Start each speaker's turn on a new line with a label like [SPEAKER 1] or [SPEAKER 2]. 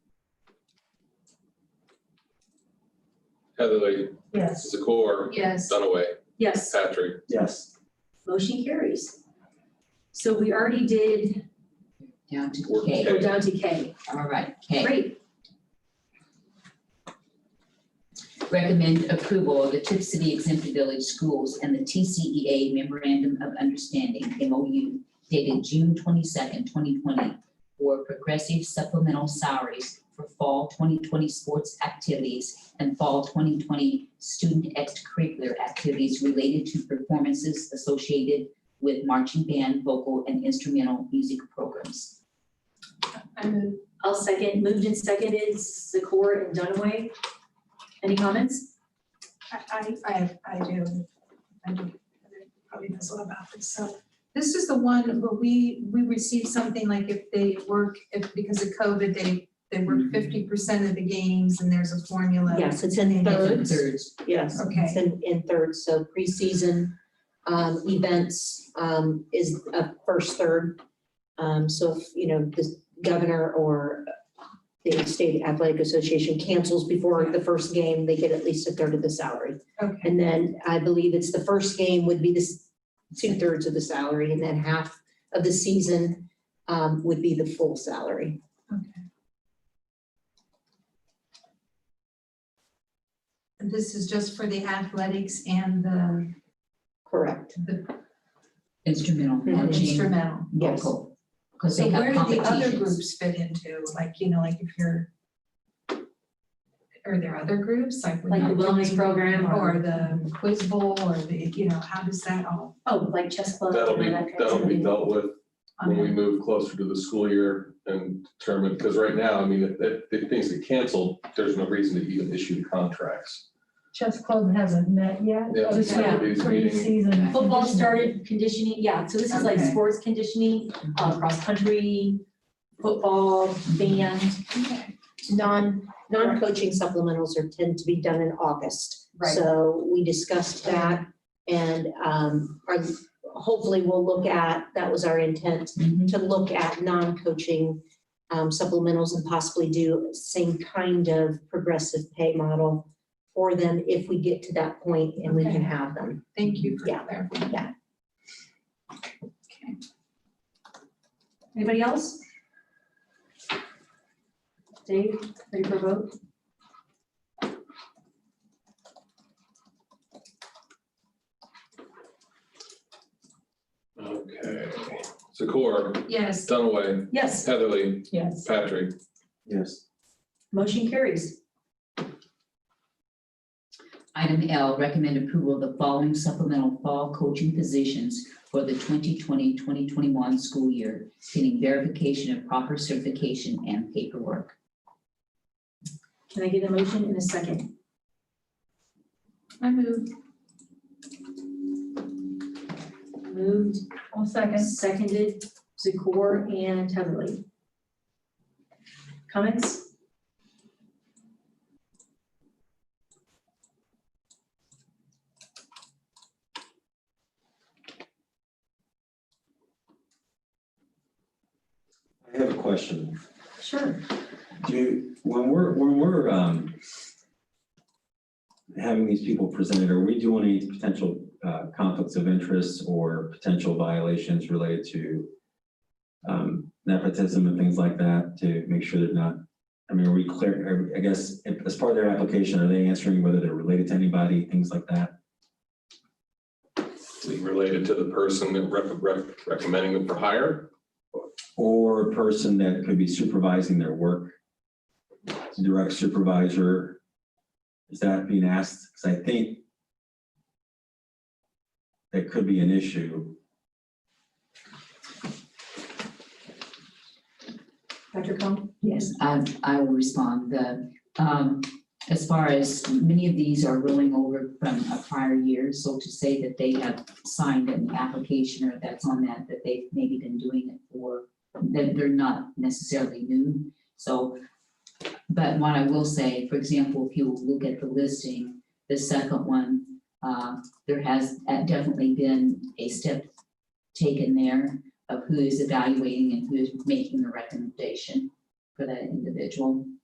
[SPEAKER 1] Heatherly,
[SPEAKER 2] Yes.
[SPEAKER 1] Zakor,
[SPEAKER 3] Yes.
[SPEAKER 1] Dunaway,
[SPEAKER 4] Yes,
[SPEAKER 1] Patrick.
[SPEAKER 5] Yes.
[SPEAKER 4] motion carries. So we already did,
[SPEAKER 3] Down to
[SPEAKER 1] Or
[SPEAKER 3] K.
[SPEAKER 4] we're down to K.
[SPEAKER 3] All right, K.
[SPEAKER 4] Great,
[SPEAKER 3] Recommend approval of the Tip City Exempt Village Schools and the TCEA Memorandum of Understanding, MOU, dated June twenty-second, twenty twenty, for progressive supplemental salaries for fall twenty twenty sports activities and fall twenty twenty student extracurricular activities related to performances associated with marching band, vocal, and instrumental music programs.
[SPEAKER 2] I move.
[SPEAKER 4] I'll second, moved and seconded, Zakor and Dunaway. Any comments?
[SPEAKER 2] I, I, I do. I do. Probably knows a lot about this. So this is the one where we, we received something like if they work, if because of COVID, they, they work fifty percent of the games and there's a formula.
[SPEAKER 6] Yes, it's in thirds,
[SPEAKER 3] Thirds.
[SPEAKER 6] yes, it's
[SPEAKER 2] Okay.
[SPEAKER 6] in, in thirds, so preseason, um, events, um, is a first third. Um, so if, you know, the governor or the state athletic association cancels before the first game, they get at least a third of the salary.
[SPEAKER 2] Okay,
[SPEAKER 6] And then I believe it's the first game would be this two thirds of the salary and then half of the season, um, would be the full salary.
[SPEAKER 2] okay. And this is just for the athletics and the,
[SPEAKER 6] Correct.
[SPEAKER 2] the
[SPEAKER 3] Instrumental marching,
[SPEAKER 2] instrumental.
[SPEAKER 6] Yes.
[SPEAKER 3] vocal, because
[SPEAKER 2] So
[SPEAKER 3] they
[SPEAKER 2] where
[SPEAKER 3] have
[SPEAKER 2] do the other
[SPEAKER 3] competitions.
[SPEAKER 2] groups fit into, like, you know, like if you're, are there other groups, like? when
[SPEAKER 4] Like the
[SPEAKER 2] you're
[SPEAKER 4] wellness
[SPEAKER 2] doing-
[SPEAKER 4] program or-
[SPEAKER 2] Or the quiz bowl, or the, you know, how does that all?
[SPEAKER 4] Oh, like chess club.
[SPEAKER 1] That'll be,
[SPEAKER 4] and that kind of
[SPEAKER 1] that'll be
[SPEAKER 4] thing.
[SPEAKER 1] dealt with when we
[SPEAKER 2] um,
[SPEAKER 1] move closer to the school year and determine, because right now, I mean, if, if- if things get canceled, there's no reason to even issue contracts.
[SPEAKER 7] chess club hasn't met yet.
[SPEAKER 1] Yeah,
[SPEAKER 7] This is
[SPEAKER 4] yeah,
[SPEAKER 1] these
[SPEAKER 7] preseason.
[SPEAKER 4] Football started conditioning, yeah, so this is like
[SPEAKER 2] Okay.
[SPEAKER 4] sports conditioning, uh, cross-country, football, band,
[SPEAKER 2] okay.
[SPEAKER 6] Non, non-coaching supplementals are, tend to be done in August.
[SPEAKER 4] Right.
[SPEAKER 6] So we discussed that and um, our- hopefully we'll look at, that was our intent,
[SPEAKER 3] Mhm.
[SPEAKER 6] to look at non-coaching um, supplementals and possibly do same kind of progressive pay model for them if we get to that point and we can
[SPEAKER 2] Okay.
[SPEAKER 6] have them.
[SPEAKER 2] Thank you for
[SPEAKER 6] Yeah.
[SPEAKER 2] clarifying.
[SPEAKER 6] Yeah.
[SPEAKER 2] Okay.
[SPEAKER 4] Anybody else? Dave, ready for a vote?
[SPEAKER 1] Okay. Zakor,
[SPEAKER 2] Yes,
[SPEAKER 1] Dunaway,
[SPEAKER 4] Yes,
[SPEAKER 1] Heatherly,
[SPEAKER 7] Yes.
[SPEAKER 1] Patrick.
[SPEAKER 5] Yes.
[SPEAKER 4] motion carries.
[SPEAKER 3] Item L, recommend approval of the following supplemental fall coaching positions for the 2020, 2021 school year, pending verification of proper certification and paperwork.
[SPEAKER 4] Can I get a motion in a second?
[SPEAKER 2] I move.
[SPEAKER 4] Moved,
[SPEAKER 7] I'll second.
[SPEAKER 4] seconded, Zakor and Heatherly. Comments?
[SPEAKER 5] I have a question.
[SPEAKER 4] Sure.
[SPEAKER 5] Do, you- when we're, when we're, um, having these people presented, are we doing any potential, uh, conflicts of interest or potential violations related to, um, nepotism and things like that to make sure they're not, I mean, are we clear, I guess, if- as part of their application, are they answering whether they're related to anybody, things like that?
[SPEAKER 1] Related to the person that rep- rep- recommending them for hire.
[SPEAKER 5] Or a person that could be supervising their work? Direct supervisor? Is that being asked? Because I think that could be an issue.
[SPEAKER 4] Dr. Cohen?
[SPEAKER 3] Yes, I, I will respond. The, um, as far as many of these are rolling over from a prior year, so to say that they have signed an application or that's on that, that they've maybe been doing it for, that they're not necessarily new. So, but what I will say, for example, if you look at the listing, the second one, uh, there has uh, definitely been a step taken there of who is evaluating and who is making the recommendation for that individual.